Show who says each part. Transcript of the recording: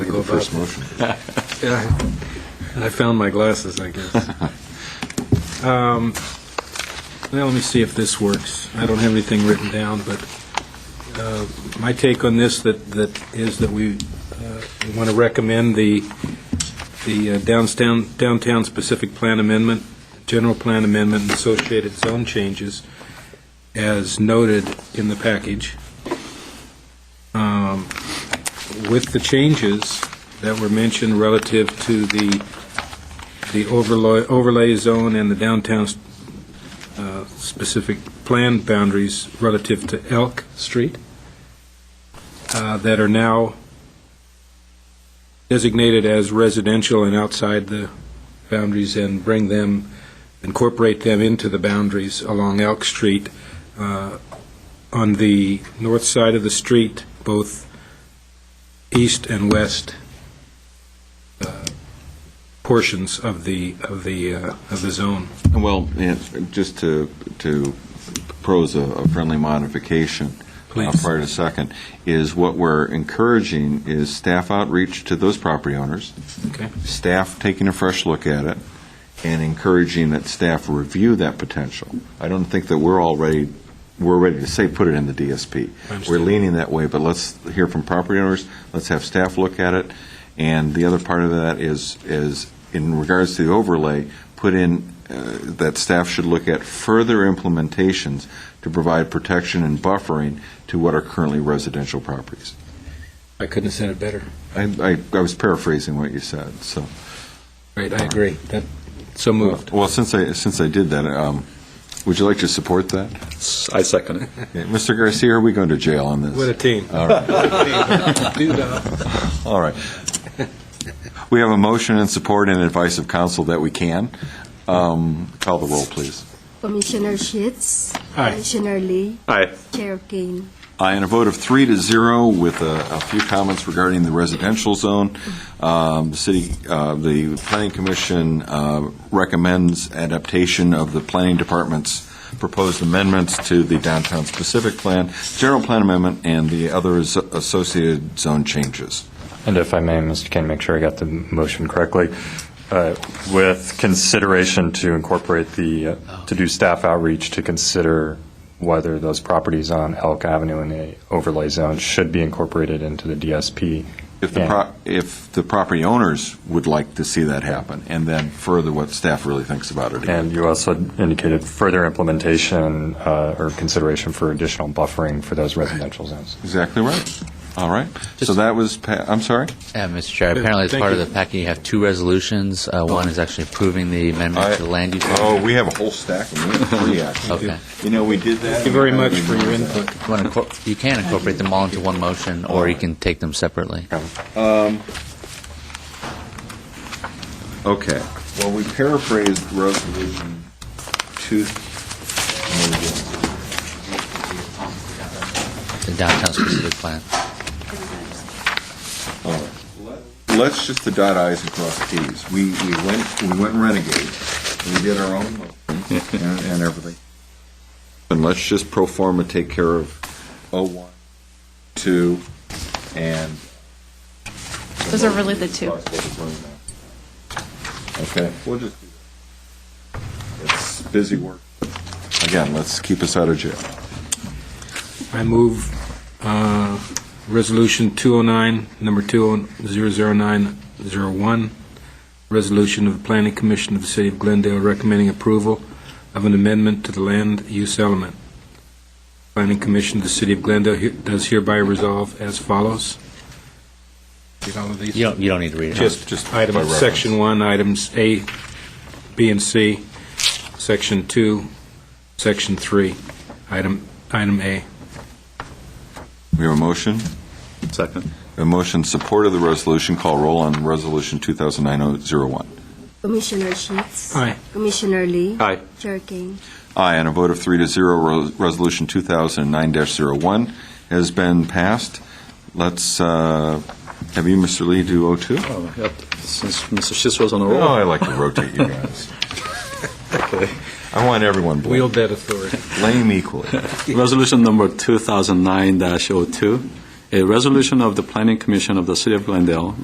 Speaker 1: for the first motion.
Speaker 2: Yeah, I found my glasses, I guess. Um, Well, let me see if this works. I don't have anything written down, but uh, my take on this that, that is that we want to recommend the, the uh, downtown, downtown specific plan amendment, general plan amendment, and associated zone changes as noted in the package, Um, with the changes that were mentioned relative to the, the overlay, overlay zone and the downtown uh, specific plan boundaries relative to Elk Street uh, that are now designated as residential and outside the boundaries and bring them, incorporate them into the boundaries along Elk Street uh, on the north side of the street, both east and west uh, portions of the, of the, uh, of the zone.
Speaker 1: Well, yeah, just to, to propose a- a friendly modification. uh,
Speaker 2: Please.
Speaker 1: Prior to second, is what we're encouraging is staff outreach to those property owners,
Speaker 2: Okay.
Speaker 1: staff taking a fresh look at it, and encouraging that staff review that potential. I don't think that we're all ready, we're ready to say, put it in the DSP.
Speaker 2: I understand.
Speaker 1: We're leaning that way, but let's hear from property owners, let's have staff look at it, and the other part of that is, is in regards to the overlay, put in, uh, that staff should look at further implementations to provide protection and buffering to what are currently residential properties.
Speaker 2: I couldn't have said it better.
Speaker 1: I, I I was paraphrasing what you said, so.
Speaker 2: Right, I agree. That, so moved.
Speaker 1: Well, since I, since I did that, um, would you like to support that?
Speaker 3: I second it.
Speaker 1: Yeah, Mr. Garcia, are we going to jail on this?
Speaker 2: What a team.
Speaker 1: All right. All right. We have a motion and support and advice of counsel that we can. Um, Call the roll, please.
Speaker 4: Commissioner Sheets.
Speaker 2: Aye.
Speaker 4: Commissioner Lee.
Speaker 3: Aye.
Speaker 4: Chair Kane.
Speaker 1: Aye, and Uh, a vote of three to zero with a a few comments regarding the residential zone. Um, The city, uh, the planning commission uh, recommends adaptation of the planning department's proposed amendments to the downtown specific plan, general plan amendment, and the other as- associated zone changes.
Speaker 5: And if I may, Mr. Kane, make sure I got the motion correctly. Uh, With consideration to incorporate the, uh, to do staff outreach to consider whether those properties on Elk Avenue in the overlay zone should be incorporated into the DSP.
Speaker 1: If the,
Speaker 5: Yeah.
Speaker 1: pro- if the property owners would like to see that happen, and then further what staff really thinks about it.
Speaker 5: And you also indicated further implementation uh, or consideration for additional buffering for those residential zones.
Speaker 1: Exactly right. All right. So that was, pa- I'm sorry?
Speaker 6: Yeah, Mr. Chair, apparently as
Speaker 2: Thank
Speaker 6: part of
Speaker 2: you. Oh.
Speaker 6: the packet, you have two resolutions. Uh, One is actually approving the amendment to the land use.
Speaker 1: Oh, we have a whole stack of them, three actually.
Speaker 6: Okay.
Speaker 1: You know, we did that.
Speaker 2: Thank you very much for your input.
Speaker 6: You wanna incor- You can incorporate them all into one motion, or you can take them separately.
Speaker 1: Okay. Well, we paraphrased Resolution 2.
Speaker 6: The downtown specific plan.
Speaker 1: All right. Let's just the dot i's and cross t's. We, we went, we went renegade. We did our own motion and and everything. And let's just pro forma take care of oh one, two, and.
Speaker 7: Those are really the two.
Speaker 1: Okay, we'll just. do that. It's busy work. Again, let's keep us out of jail.
Speaker 2: I move uh, Resolution 209, number 200901, resolution of the Planning Commission of the City of Glendale recommending approval of an amendment to the land use element. Planning Commission of the City of Glendale he- does hereby resolve as follows. Get all of these?
Speaker 6: You don't, you don't need to read it.
Speaker 2: Just, just item, section one, items A, B, and C, section two, section three, item, item A.
Speaker 1: We have a motion?
Speaker 3: Second.
Speaker 1: A motion support of the resolution. Call roll on Resolution 2009-01.
Speaker 4: Commissioner Sheets.
Speaker 2: Aye.
Speaker 4: Commissioner Lee.
Speaker 3: Aye.
Speaker 4: Chair Kane.
Speaker 1: Aye, on a vote of three to zero, Ro- Resolution 2009-01 has been passed. Let's, uh, have you, Mr. Lee, do 02?
Speaker 3: Oh, yep. Since Mr. Schiff's on a
Speaker 1: Oh, I
Speaker 3: roll.
Speaker 1: like to rotate you guys.
Speaker 3: Okay.
Speaker 1: I want everyone bl-
Speaker 2: Wield that authority.
Speaker 1: blame equally.
Speaker 3: Resolution number 2009-02, a resolution of the Planning Commission of the City of Glendale